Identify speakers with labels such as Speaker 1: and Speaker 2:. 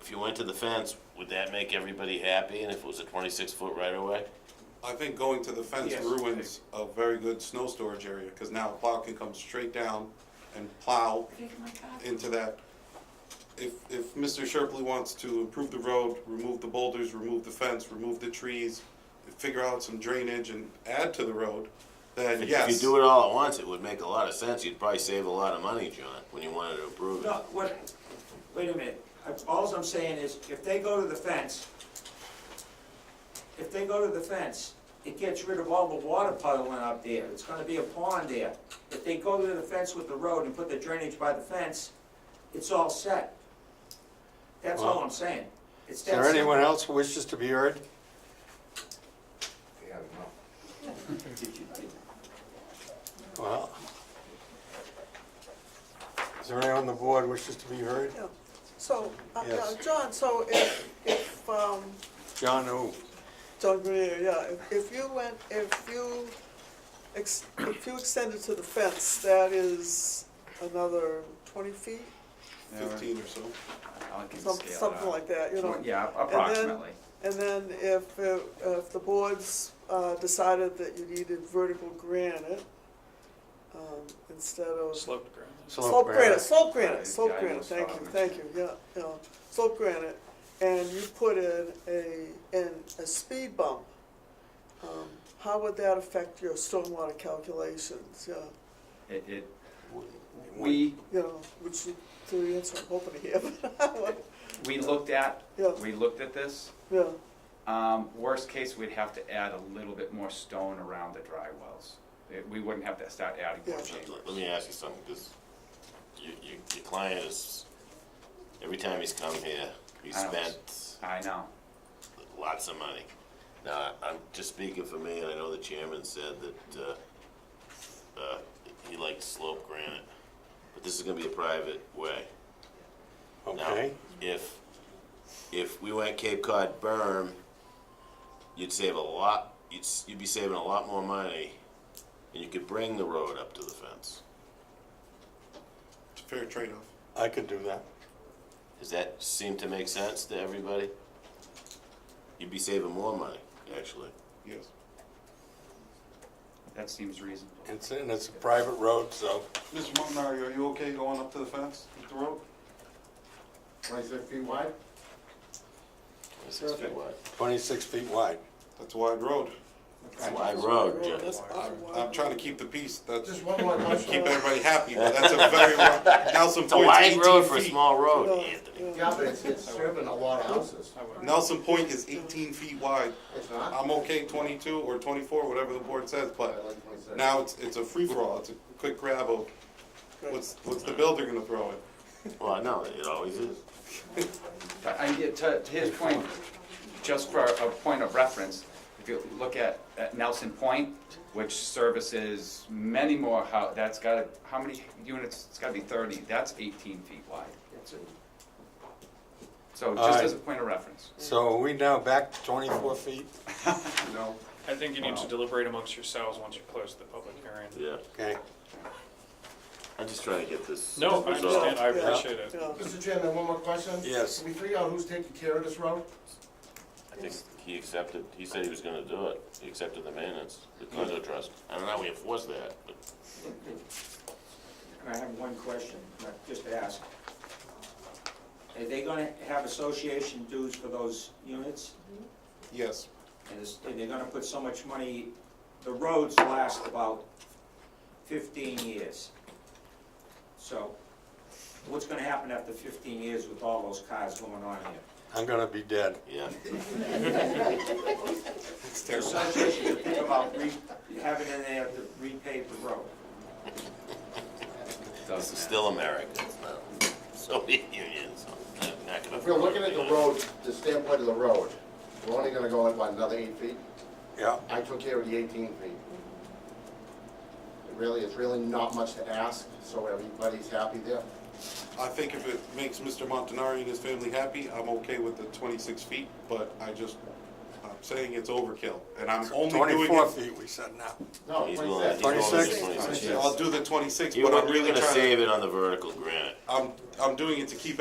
Speaker 1: if you went to the fence, would that make everybody happy? And if it was a twenty-six foot right of way?
Speaker 2: I think going to the fence
Speaker 3: Yes.
Speaker 2: ruins a very good snow storage area, because now a plow can come straight down and plow into that. If, if Mr. Sherpley wants to improve the road, remove the boulders, remove the fence, remove the trees, figure out some drainage and add to the road, then yes.
Speaker 1: If you do it all at once, it would make a lot of sense. You'd probably save a lot of money, John, when you wanted to approve it.
Speaker 3: No, what, wait a minute, all I'm saying is, if they go to the fence, if they go to the fence, it gets rid of all the water puddling up there, it's gonna be a pond there. If they go to the fence with the road and put the drainage by the fence, it's all set. That's all I'm saying. It's
Speaker 4: Is
Speaker 3: that
Speaker 4: there
Speaker 3: simple.
Speaker 4: anyone else who wishes to be heard? Well. Is there anyone on the board wishes to be heard?
Speaker 5: Yeah. So, uh,
Speaker 4: Yes.
Speaker 5: yeah, John, so if, if, um,
Speaker 4: John who?
Speaker 5: John Grenier, yeah, if- if you went, if you, ex- if you extended to the fence, that is another twenty feet?
Speaker 2: Fifteen or so.
Speaker 6: I can
Speaker 5: Some-
Speaker 6: scale it
Speaker 5: Something
Speaker 6: up.
Speaker 5: like that, you know?
Speaker 6: Yeah,
Speaker 5: And then-
Speaker 6: approximately.
Speaker 5: And then if, it- if the boards uh, decided that you needed vertical granite um, instead of.
Speaker 7: Sloped ground.
Speaker 5: Slope granite, slope
Speaker 6: Yeah,
Speaker 5: granite,
Speaker 6: I
Speaker 5: slope granite,
Speaker 6: almost
Speaker 5: thank
Speaker 6: forgot
Speaker 5: you,
Speaker 6: to
Speaker 5: thank you, yeah, yeah, slope granite. And you put in a, in a speed bump, um, how would that affect your stormwater calculations, yeah?
Speaker 6: It, it, we,
Speaker 5: You know, which you, the answer I'm hoping to hear, but,
Speaker 6: we looked at,
Speaker 5: yeah,
Speaker 6: we looked at this.
Speaker 5: yeah,
Speaker 6: Um, worst case, we'd have to add a little bit more stone around the dry wells. It- We wouldn't have to start adding more
Speaker 5: Yeah.
Speaker 6: chambers.
Speaker 1: Let me ask you something, because you, you, your client is, every time he's come here, he
Speaker 6: I know.
Speaker 1: spent
Speaker 6: I know.
Speaker 1: lots of money. Now, I- I'm just speaking for me, and I know the chairman said that, uh, uh, he likes slope granite, but this is gonna be a private way. Now,
Speaker 4: Okay,
Speaker 1: If, if we went Cape Cod berm, you'd save a lot, you'd, s- you'd be saving a lot more money, and you could bring the road up to the fence.
Speaker 2: It's a fair trade-off.
Speaker 4: I could do that.
Speaker 1: Does that seem to make sense to everybody? You'd be saving more money, actually.
Speaker 2: Yes.
Speaker 6: That seems reasonable.
Speaker 4: It's, and it's a private road, so
Speaker 2: Mr. Montanari, are you okay going up to the fence with the rope?
Speaker 8: Twenty-six feet wide?
Speaker 1: Twenty-six feet wide.
Speaker 4: twenty-six feet wide.
Speaker 2: That's a wide road.
Speaker 1: It's a wide road, Jim.
Speaker 5: that's
Speaker 2: I'm,
Speaker 5: awful.
Speaker 2: I'm trying to keep the peace, that's,
Speaker 8: Just one more
Speaker 2: keep
Speaker 8: question.
Speaker 2: everybody happy, but that's a very, wide- Nelson
Speaker 1: It's a
Speaker 2: Point's
Speaker 1: wide road
Speaker 2: eighteen
Speaker 1: for a
Speaker 2: feet.
Speaker 1: small road,
Speaker 5: Yeah,
Speaker 1: Anthony.
Speaker 8: Yeah, but it's, it's serving a lot of houses.
Speaker 2: Nelson Point is eighteen feet wide.
Speaker 8: It's not?
Speaker 2: I'm okay twenty-two or twenty-four, whatever the board says,
Speaker 8: I
Speaker 2: but
Speaker 8: like 26.
Speaker 2: now it's, it's a free-for-all, it's a quick grab of, what's, what's the builder gonna throw in?
Speaker 1: Well, no, it always is.
Speaker 6: But I, get to, to his point, just for a point of reference, if you look at, at Nelson Point, which services many more hou- that's got, how many units, it's gotta be thirty, that's eighteen feet wide.
Speaker 8: It's a-
Speaker 6: So
Speaker 4: All
Speaker 6: just
Speaker 4: right.
Speaker 6: as a point of reference.
Speaker 4: So are we now back to twenty-four feet?
Speaker 2: No.
Speaker 7: I think you need to deliberate amongst yourselves once you close the public hearing.
Speaker 1: Yeah,
Speaker 4: Okay,
Speaker 1: I'm just trying to get this.
Speaker 7: No, I
Speaker 1: resolved.
Speaker 7: understand, I
Speaker 5: Yeah.
Speaker 7: appreciate it.
Speaker 5: yeah.
Speaker 8: Mr. Chairman, one more question?
Speaker 4: Yes.
Speaker 8: Can we figure out who's taking care of this road?
Speaker 1: I think he accepted, he said he was gonna do it, he accepted the maintenance, the condo trust, I don't know how we enforce that, but.
Speaker 3: I have one question, not just to ask. Are they gonna have association dues for those units?
Speaker 2: Yes,
Speaker 3: And it's- and they're gonna put so much money, the roads last about fifteen years. So, what's gonna happen after fifteen years with all those cars going on here?
Speaker 4: I'm gonna be dead.
Speaker 1: Yeah,
Speaker 2: it's
Speaker 3: The
Speaker 2: terrible.
Speaker 3: association should think about re, having it in there to repave the road.
Speaker 1: this is still America, it's not Soviet Union, so I'm not gonna.
Speaker 8: If we're looking at the road, the standpoint of the road, we're only gonna go like, what, another eight feet?
Speaker 4: Yeah,
Speaker 8: I took care of the eighteen feet. It really, it's really not much to ask, so everybody's happy there.
Speaker 2: I think if it makes Mr. Montanari and his family happy, I'm okay with the twenty-six feet, but I just, I'm saying it's overkill, and I'm only doing
Speaker 4: twenty-four
Speaker 2: it.
Speaker 4: feet we said now.
Speaker 8: No,
Speaker 1: He's going, he's
Speaker 8: twenty-six.
Speaker 1: going to
Speaker 4: 26?
Speaker 1: twenty-six.
Speaker 2: I'll do the twenty-six,
Speaker 1: You're
Speaker 2: but I'm
Speaker 1: you're
Speaker 2: really
Speaker 1: gonna
Speaker 2: trying to,
Speaker 1: save it on the vertical granite.
Speaker 2: I'm, I'm doing it to keep